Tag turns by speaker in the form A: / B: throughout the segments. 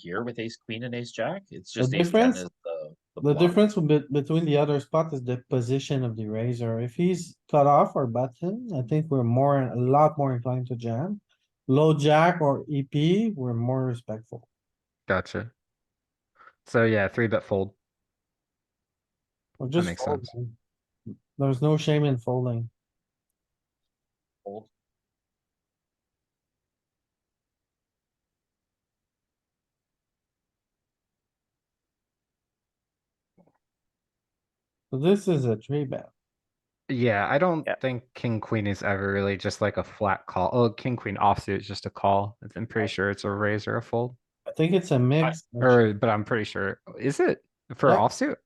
A: here with ace queen and ace jack. It's
B: The
A: just ace ten
B: difference-
A: is the.
B: The
A: bluff.
B: difference be- between the other spot is the position of the razor. If he's cut off or button, I think we're more, a lot more inclined to jam. Low jack or EP, we're more respectful.
C: Gotcha. So yeah, three bet fold.
B: We're just
C: makes
B: fold,
C: sense.
B: man. There's no shame in folding.
A: Fold.
B: So this is a three bet.
C: Yeah, I don't
A: Yeah.
C: think king queen is ever really just like a flat call. Oh, king queen offsuit is just a call. I'm pretty sure it's a raise or a fold.
B: I think it's a mix. actually.
C: Or, but I'm pretty sure, is it for
B: Yeah.
C: offsuit?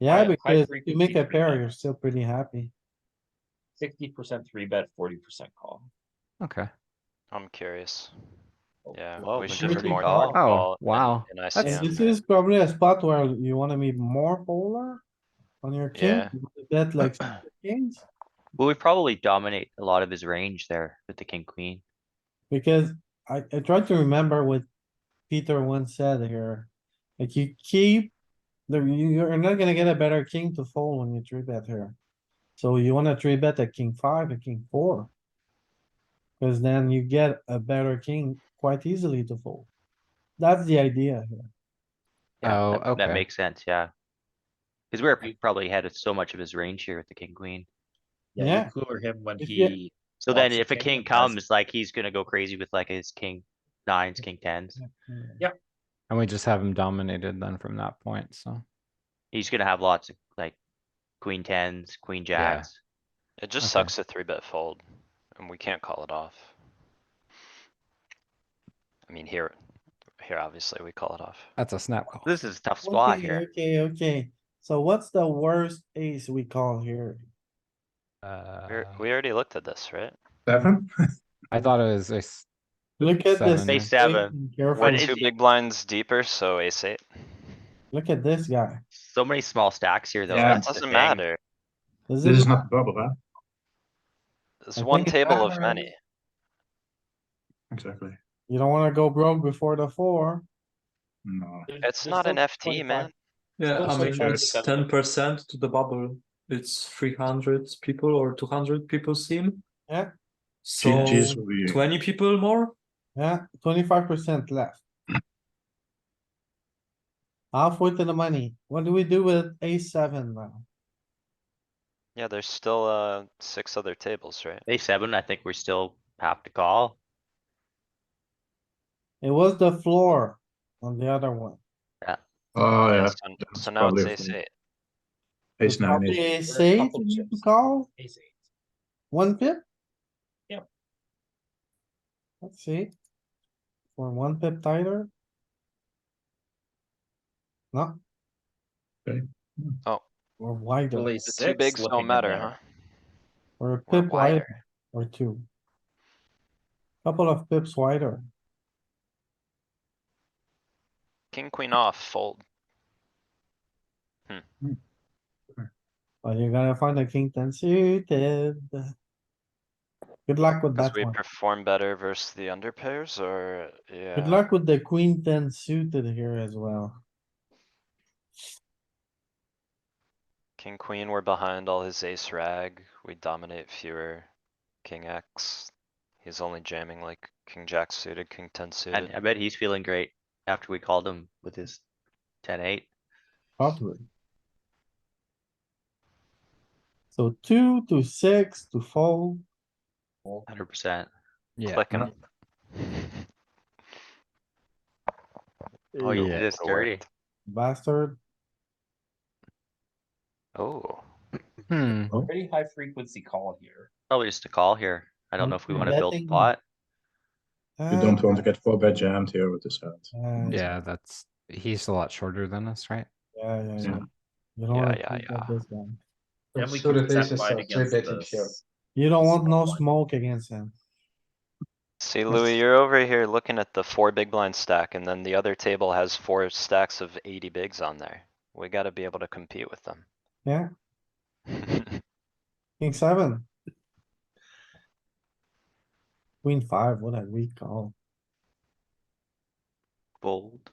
B: Yeah,
A: high- high
B: because if you
A: frequency
B: make a
A: three
B: pair,
A: bet.
B: you're still pretty happy.
A: Sixty percent three bet, forty percent call.
C: Okay.
D: I'm curious.
A: Oh,
D: Yeah,
A: well,
D: we
A: but
D: should
B: should
D: be more
B: call.
D: hard
C: Oh,
D: call than-
C: wow.
D: than ICM.
C: That's- Yeah.
B: This is probably a spot where you wanna be more polar on your king,
D: Yeah.
B: you wanna bet like kings.
D: Well, we probably dominate a lot of his range there with the king, queen.
B: Because I, I tried to remember what Peter once said here. Like you keep, the, you- you're not gonna get a better king to fold when you three bet here. So you wanna three bet a king five, a king four. Cause then you get a better king quite easily to fold. That's the idea here.
D: Yeah,
C: Oh,
D: that-
C: okay.
D: That makes sense, yeah. Cause we're probably had so much of his range here with the king, queen.
A: Yeah,
B: Yeah.
A: you cooler him when
B: If you-
A: he,
D: So then
A: Lots of
D: if a
A: king
D: king
A: and has-
D: comes, like he's gonna go crazy with like his king nines, king tens.
C: And we just have him dominated then from that point, so.
D: He's gonna have lots of like queen tens, queen
C: Yeah.
D: jacks.
E: It just
C: Okay.
E: sucks a three bet fold and we can't call it off. I mean, here, here obviously we call it off.
C: That's a snap call.
D: This is a tough spot
B: Okay,
D: here.
B: Okay, okay. So what's the worst ace we call here?
E: We're-
C: Uh,
E: We already looked at this, right?
F: Seven?
C: I thought it was ace.
B: Look at this.
C: Seven. Ace
B: ace
D: seven.
B: and
E: We're
B: Careful,
D: it-
E: two big blinds deeper, so ace eight.
B: look at this guy.
D: So many small stacks here though.
F: Yeah.
D: that's the
E: Doesn't
D: thing.
E: matter.
B: This
F: This
B: is
F: is not bubble, huh?
E: It's
B: I
E: one
B: think it's
E: table of
B: better.
E: many.
F: Exactly.
B: You don't wanna go broke before the four.
F: No.
E: It's not an FT, man.
G: Yeah, I
F: Also
G: mean,
F: true.
G: it's ten percent to the bubble. It's three hundred people or two hundred people sim.
B: Yeah.
G: So
F: GG's will be.
G: twenty people more?
B: Yeah, twenty-five percent left. Halfway to the money. What do we do with ace seven now?
E: Yeah, there's still, uh, six other tables, right?
D: Ace seven, I think we still have to call.
B: It was the floor on the other one.
F: Oh,
E: Yeah,
F: yeah.
E: so-
F: that's
E: So now it's
F: probably a
E: ace
F: fold.
E: eight.
F: Ace nine,
B: Probably
F: ace.
B: ace eight,
A: Couple
B: we need to
A: chips.
B: call,
A: ace eight.
B: one pip?
A: Yep.
B: Let's see. For one pip tighter. No.
F: Okay.
E: Oh.
B: Or wider,
A: Really
E: The two
A: six
E: bigs
A: looking
E: don't
A: in
E: matter,
A: there.
E: huh?
B: or a
E: We're
B: pip wider,
E: wider.
B: or two. Couple of pips wider.
E: King, queen off, fold.
B: Well, you're gonna find a king ten suited. Good luck with
E: Cause
B: that
E: we
B: one.
E: perform better versus the under pairs or, yeah.
B: Good luck with the queen ten suited here as well.
E: King, queen, we're behind all his ace rag, we dominate fewer. King X, he's only jamming like king jack suited, king ten
D: And
E: suited.
D: I bet he's feeling great after we called him with his ten eight.
B: Probably. So two to six to fold.
D: Hundred percent.
C: Yeah. Mm.
E: Click 'em.
D: Oh, you did this
E: it
D: dirty.
E: worked.
B: Bastard.
E: Oh,
C: Hmm,
A: Pretty high frequency call here.
D: Probably just a call here. I don't know if we
B: Mm,
D: wanna build a
B: betting.
D: pot.
F: You don't
B: Ah,
F: want to get four bet jammed here with this hand.
B: Yeah,
C: yeah, that's, he's a lot shorter than us, right?
B: yeah, yeah.
F: Yeah.
B: You don't
E: Yeah,
B: wanna
E: yeah,
B: think of
E: yeah.
B: this guy.
A: And we
G: So
A: can
G: the
A: set
G: basis
A: line
G: are three
A: against
G: betting
A: this.
G: here.
B: You don't want no
A: Someone.
B: smoke against him.
E: see Louis, you're over here looking at the four big blind stack and then the other table has four stacks of eighty bigs on there. We gotta be able to compete with them.
B: Yeah, king seven. Queen five, what a weak call.
D: Fold.